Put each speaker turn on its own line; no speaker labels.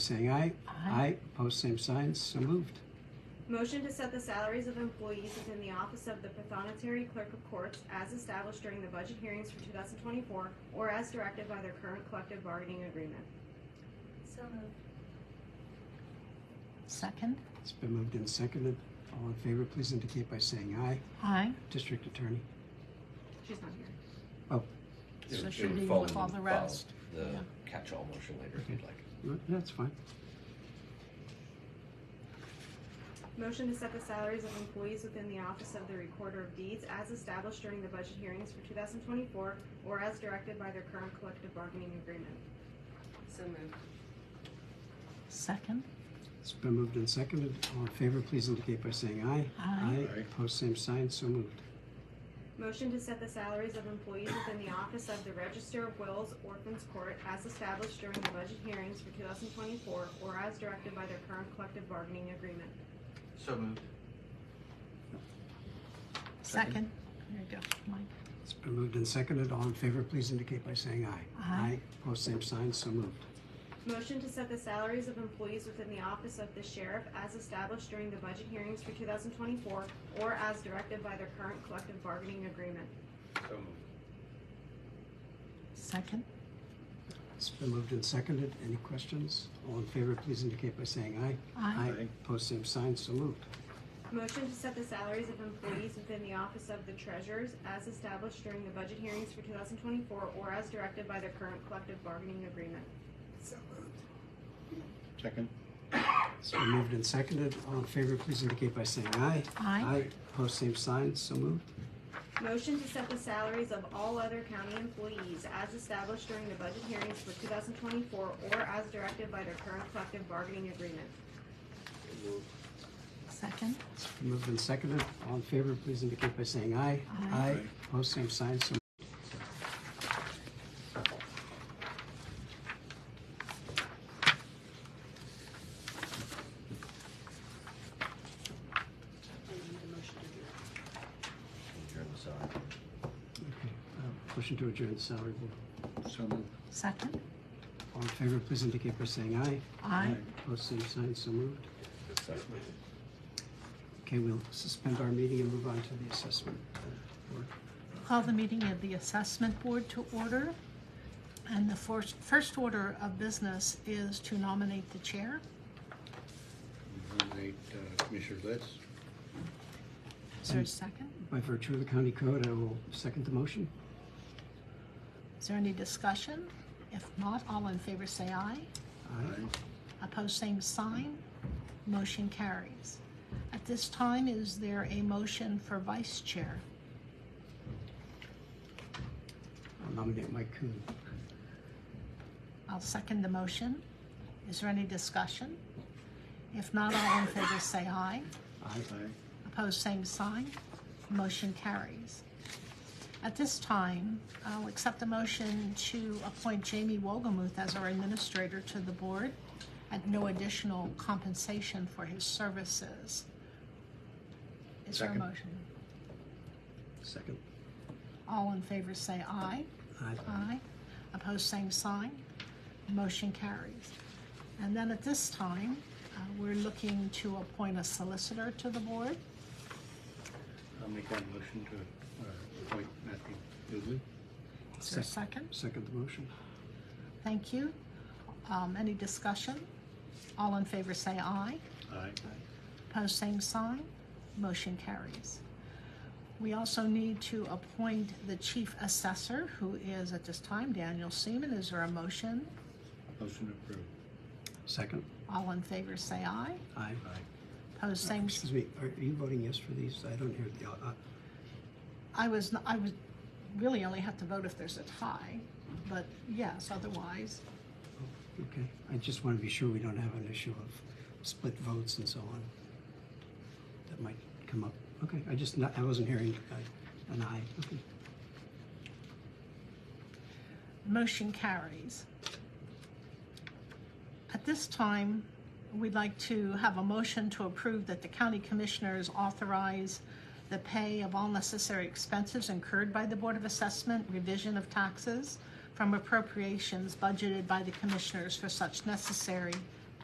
saying aye.
Aye.
Opposed, same signs. So moved.
Motion to set the salaries of employees within the office of the Pathonetary Clerk of Courts as established during the budget hearings for 2024 or as directed by their current collective bargaining agreement.
So moved.
Second?
It's been moved and seconded. All in favor, please indicate by saying aye.
Aye.
District Attorney.
She's not here.
So
It would- it
should
would
we
fall
with
in
all the
file
rest?
The
Yeah.
catch-all motion later if you'd like.
No, That's fine.
Motion to set the salaries of employees within the office of the Recorder of Deeds as established during the budget hearings for 2024 or as directed by their current collective bargaining agreement.
So moved.
Second?
It's been moved and seconded. All in favor, please indicate by saying aye.
Aye.
Aye. Opposed, same signs. So moved.
Motion to set the salaries of employees within the office of the Register of Wills Orphans Court as established during the budget hearings for 2024 or as directed by their current collective bargaining agreement.
So moved.
Second? There you go, Mike.
It's been moved and seconded. All in favor, please indicate by saying aye.
Aye.
Opposed, same signs. So moved.
Motion to set the salaries of employees within the office of the sheriff as established during the budget hearings for 2024 or as directed by their current collective bargaining agreement.
So moved.
Second?
It's been moved and seconded. Any questions? All in favor, please indicate by saying aye.
Aye.
Opposed, same signs. So moved.
Motion to set the salaries of employees within the office of the treasurers as established during the budget hearings for 2024 or as directed by their current collective bargaining agreement.
So moved.
Second.
It's been moved and seconded. All in favor, please indicate by saying aye.
Aye.
Opposed, same signs. So moved.
Motion to set the salaries of all other county employees as established during the budget hearings for 2024 or as directed by their current collective bargaining agreement.
Second?
It's been moved and seconded. All in favor, please indicate by saying aye.
Aye.
Opposed, same signs. So
Do you need a motion to do that?
Adjourn the salary.
Okay, uh, Motion to adjourn the salary board.
So moved.
Second?
All in favor, please indicate by saying aye.
Aye.
Opposed, same sign, so moved.
Second.
Okay, we'll suspend our meeting and move on to the assessment board.
Call the meeting of the Assessment Board to order. And the first, first order of business is to nominate the chair.
Nominate uh, Commissioner Litz.
Is there a
Um,
second?
By virtue of the county code, I will second the motion.
Is there any discussion? If not, all in favor say aye.
Aye.
Opposed, same sign. Motion carries. At this time, is there a motion for vice chair?
I'll nominate Mike Coon.
I'll second the motion. Is there any discussion? If not, all in favor say aye.
Aye.
Opposed, same sign. Motion carries. At this time, I'll accept the motion to appoint Jamie Wogomuth as our administrator to the board at no additional compensation for his services. Is there a
Second.
motion?
Second.
All in favor say aye.
Aye.
Aye. Opposed, same sign. Motion carries. And then at this time, uh, we're looking to appoint a solicitor to the board.
I'll make that motion to uh, appoint Matthew Dooley.
Is there a second?
Second the motion.
Thank you. Um, Any discussion? All in favor say aye.
Aye.
Opposed, same sign. Motion carries. We also need to appoint the chief assessor, who is at this time Daniel Seaman. Is there a motion?
Motion approved.
Second.
All in favor say aye.
Aye.
Opposed, same sign.
Excuse me, are are you voting yes for these? I don't hear the, uh, uh,
I was, n- I would really only have to vote if there's a tie, but yes, otherwise,
okay. I just want to be sure we don't have an issue of split votes and so on. That might come up. Okay, I just, not- I wasn't hearing uh, an aye. Okay.
motion carries. At this time, we'd like to have a motion to approve that the county commissioners authorize the pay of all necessary expenses incurred by the Board of Assessment, revision of taxes from appropriations budgeted by the commissioners for such necessary